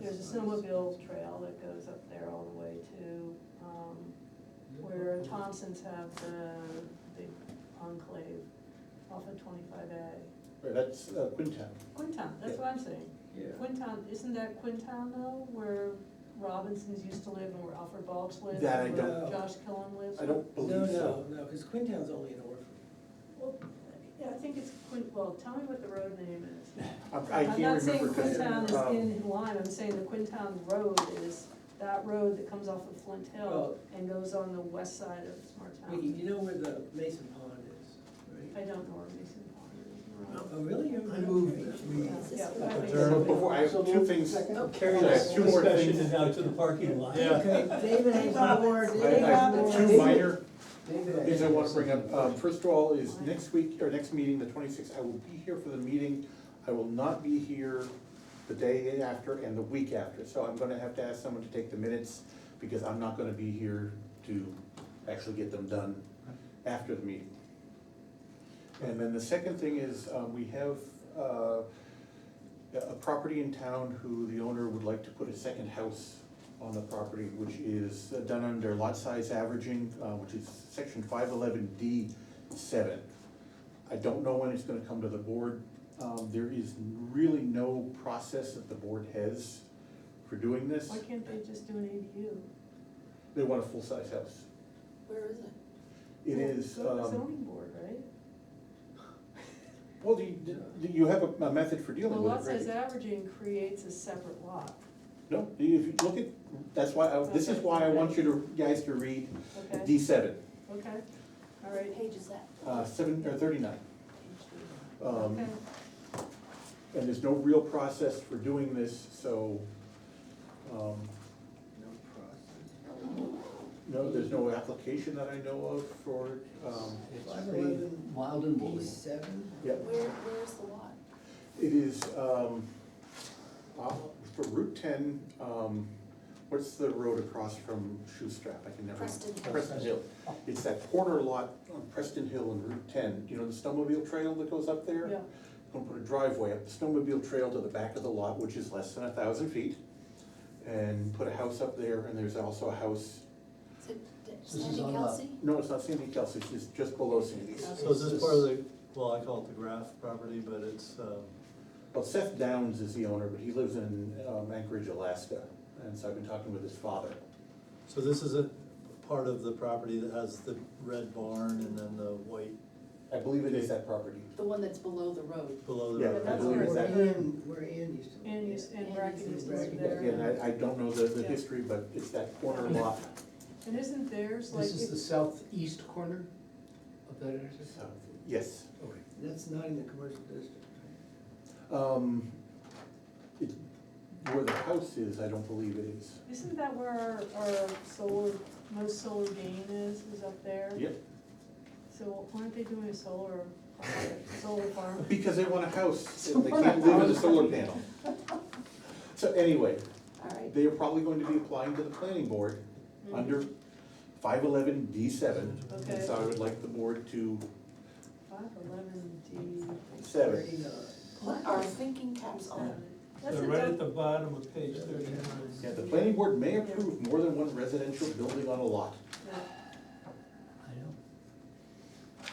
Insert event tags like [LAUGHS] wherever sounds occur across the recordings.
there's a snowmobile trail that goes up there all the way to, um, where Thompson's have the big enclave off of twenty-five A. Right, That's uh, Quintown. Quintown, that's what I'm saying. Yeah. Quintown, isn't that Quintown though, where Robinsons used to live and where Alfred Balch lived? That I and Where don't- Josh Killen lives? I don't No, believe no, so. no, because Quintown's only an Oh. orphan. Well, yeah, I think it's Quin, well, tell me what the road name is. I I can't remember. I'm 'cause, not saying Quintown um, is in Lime, I'm saying the Quintown Road is that road that comes off of Flint Hill Well- and goes on the west side of Smart Wait, Town. you know where the Mason Pond is, I right? don't know where Mason Pond Oh, really? You're- I move okay. that we- is. Yeah, Up yeah, the I think turn. So so. Before, I have two things. Oh, Carry I have this two more discussion things. and now to the parking lot. Yeah. Okay, David has more, I David has have more. two minor David, things I wanna bring up. Um, First of all, is next week, or next meeting, the twenty-sixth, I will be here for the meeting. I will not be here the day after and the week after, so I'm gonna have to ask someone to take the minutes, because I'm not gonna be here to actually get them done after the meeting. And then the second thing is, um, we have, uh, a a property in town who the owner would like to put a second house on the property, which is done under lot size averaging, uh, which is section five eleven D seven. I don't know when it's gonna come to the board. Um, there is really no process that the board has for doing this. Why can't they just do an ADU? They want a full-size house. Where is it? It is, Go to the um, zoning board, right? well, do you, do you have a, a method for Well, dealing with it, lot size right? averaging creates a separate lot, No, if you look at, that's why, I- this is Okay. why I want you to, guys to read okay? D seven. Okay, all right, What page is that? Uh, seven, or thirty-nine. Page three. Um, okay. And there's no real process for doing this, so, um, No process. no, there's no application that I know of for, um, Five It's pretty eleven. wild and woolly. P seven? yeah, Where, where's the lot? it is, um, off- for Route ten, um, what's the road across from Shoestrap? I can never. Preston Hill. Preston Hill. It's that corner lot on Preston Hill and Route ten, you know, the snowmobile trail that goes up there? Yeah. Gonna put a driveway up the snowmobile trail to the back of the lot, which is less than a thousand feet, and put a house up there, and there's also a house, Is it This is Sandy on Kelsey? no, it's not Sandy Kelsey's, it's just below Sandy's. So is this part of the, well, I call it the graph property, but it's, um, Well, Seth Downs is the owner, but he lives in um, Anchorage, Alaska, and so I've been talking with his father. so this is a part of the property that has the red barn and then the white I believe it is that property. The one that's below the road. below Yeah, the. I red that's barn. believe where it's Where that. Ann, where Ann used to live. And you, and Bracken used to live Yeah, there. Again, I, I don't know the, the Yeah. history, but it's that corner lot. [LAUGHS] And isn't theirs like, This is the southeast corner of that intersection? So, Yes. Okay. That's not in the commercial district, right? Um, it, where the house is, I don't believe it is. isn't that where our, our solar, most solar gain is, is up there? Yep. So why aren't they doing a solar, solar farm? Because they want a house, and they can't live in a solar panel. So anyway, All right. they are probably going to be applying to the planning board Hmm. under five eleven D seven. Mm-hmm. Okay, And so I would like the board to, five eleven D. Seven. Thirty-nine. What are thinking caps on? That's They're a right at dumb- the bottom of page thirty-nine. yeah, the planning board may approve more than one residential building on a lot. yeah. I know.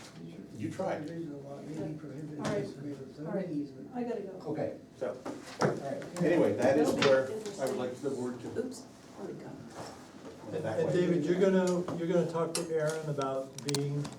You tried. Subdivision law may be prohibited All right. disagreement, All right. zoning easement. I gotta go. Okay, So, all right. anyway, that is where I would like the board to Oops, where'd it go? go And- that And way. David, you're gonna, you're gonna talk to Aaron about being